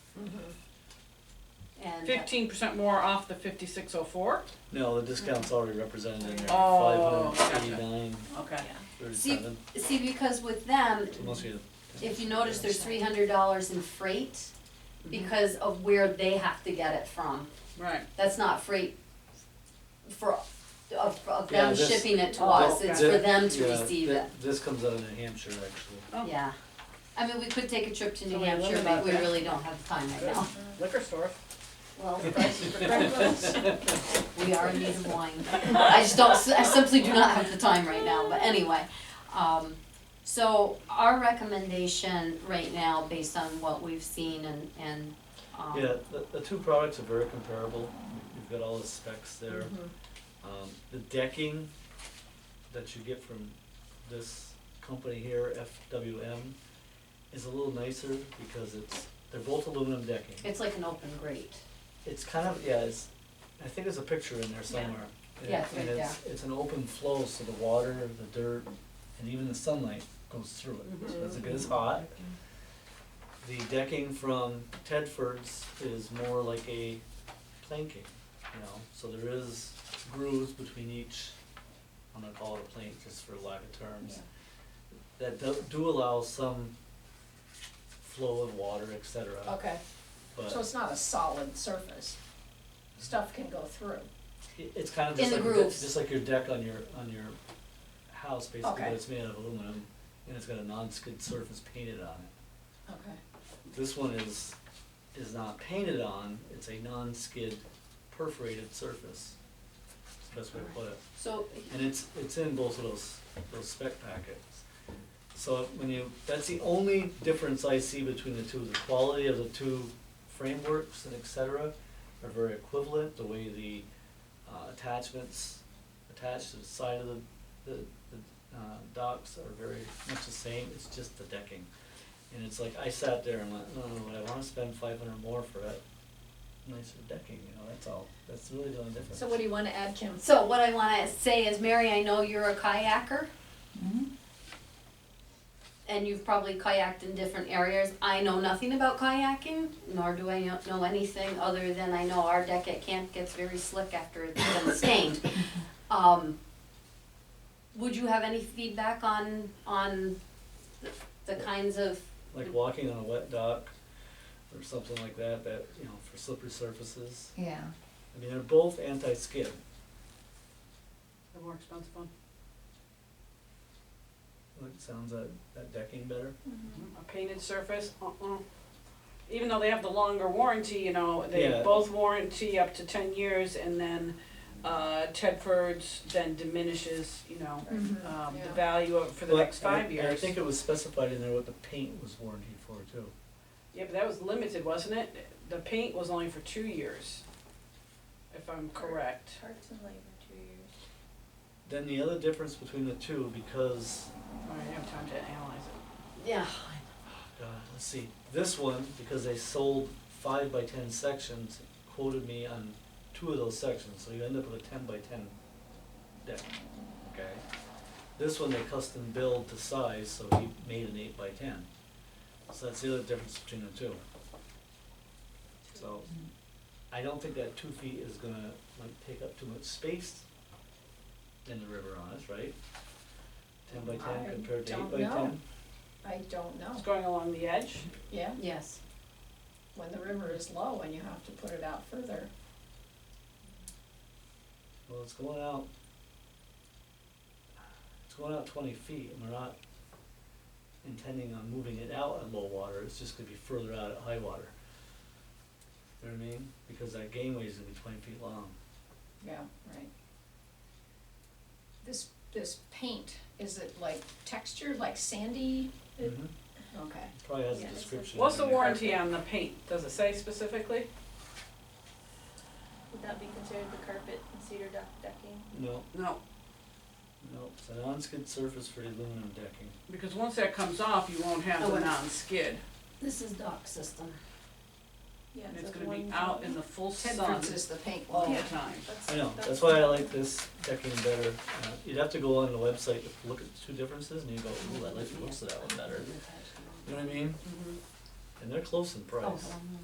and. Fifteen percent more off the fifty-six oh four, No, the discount's already represented in there, five Oh, hundred eighty-nine okay. thirty-seven, See, because with them, unless you. if you notice, there's three hundred dollars in freight Mm-hmm. because of where they have to get it from. Right, That's not freight for, of, of Yeah, them this- shipping it to Oh, us, th- it's th- for them to yeah, receive th- it, This comes out of New Hampshire, actually. Oh. yeah. I mean, we could take a trip to So New we Hampshire, but eliminate we that. really don't have the time right now. liquor store. Well, we are in need of wine. I just don't, I simply do not have the time right now, but anyway. Um, so our recommendation right now, based on what we've seen and, and, um, Yeah, the, the two products are very comparable, you've got all the specs there. Mm-hmm. Um, the decking that you get from this company here, FWM, is a little nicer because it's, they're both aluminum decking. it's like an open grate. It's kind of, yeah, it's, I think there's a picture in there somewhere. And it- Yeah, it's right And it's, it's an open flow, so the water, the dirt, and even the sunlight goes through it, Mm-hmm. so it's it gets hot. The decking from Tedford's is more like a planking, you know, so there is grooves between each, I'm gonna call it a plank just for lack of terms. That do, do allow some flow of water, et cetera, Okay, so but it's not a solid surface. Stuff can go through. it- it's kind of In just the like, your de- grooves. just like your deck on your, on your house, basically, but Okay. it's made out of aluminum, and it's got a non-skid surface painted on it. Okay. This one is, is not painted on, it's a non-skid perforated surface, That's the best way to put it. So, And it's, it's in both of those, those spec packets. So when you, that's the only difference I see between the two, the quality of the two frameworks and et cetera are very equivalent, the way the, uh, attachments attached to the side of the, the, the, uh, docks are very much the same, it's just the decking. And it's like, I sat there and went, no, no, no, I wanna spend five hundred more for that nicer decking, you know, that's all, that's really the only difference. So what do you wanna add, Kim? so what I wanna say is, Mary, I know you're a kayaker. Mm-hmm. And you've probably kayaked in different areas. I know nothing about kayaking, nor do I know- know anything other than I know our deck at camp gets very slick after it's been stained. Um, would you have any feedback on, on the- the kinds of, like walking on a wet dock or something like that, that, you know, for slippery surfaces. Yeah. I mean, they're both anti-skid. The more expensive one. Like, sounds that, that decking better? A painted surface, uh-uh. Even though they have the longer warranty, you know, they Yeah. both warranty up to ten years and then, uh, Tedford's then diminishes, you know, Mhm. um, the Yeah. value of, for the But- next and five I- years. and I think it was specified in there what the paint was warranted for too. Yeah, but that was limited, wasn't it? The paint was only for two years, if I'm correct. Parts and labor, two years. Then the other difference between the two, because, I didn't have time to analyze it. yeah, God, Uh, let's see, this one, because they sold five by ten sections, quoted me on two of those sections, so you end up with a ten by ten deck, okay? This one they custom build to size, so he made an eight by ten. So that's the other difference between the two. So, I don't think that two feet is gonna like take up too much space in the river on us, right? Ten by ten I compared to eight don't by ten? know. I don't know, It's going along the edge. yeah, yes. when the river is low and you have to put it out further. Well, it's going out. It's going out twenty feet, and we're not intending on moving it out at low water, it's just gonna be further out at high water. You know what I mean? Because that gangway's gonna be twenty feet long. Yeah, right. This, this paint, is it like textured, like sandy? It- Mhm. Okay. Probably has a Yeah, it's a- description. What's in the there. warranty on the paint? Does it say specifically? Would that be considered the carpet and cedar duck decking? No, No. no, it's a non-skid surface for aluminum decking. Because once that comes off, you won't have Oh, the it's- non-skid. This is dock system. Yeah, And so it's the gonna be one out zone. in the full sun Tedford's is the paint all wall. the Yeah. time. That's- I know, that's- that's why I like this decking better. Uh, You'd have to go on the website, to look at the two differences, and you go, Mm-hmm. ooh, I like the looks of that one better. You know what I mean? And they're close in price. Oh,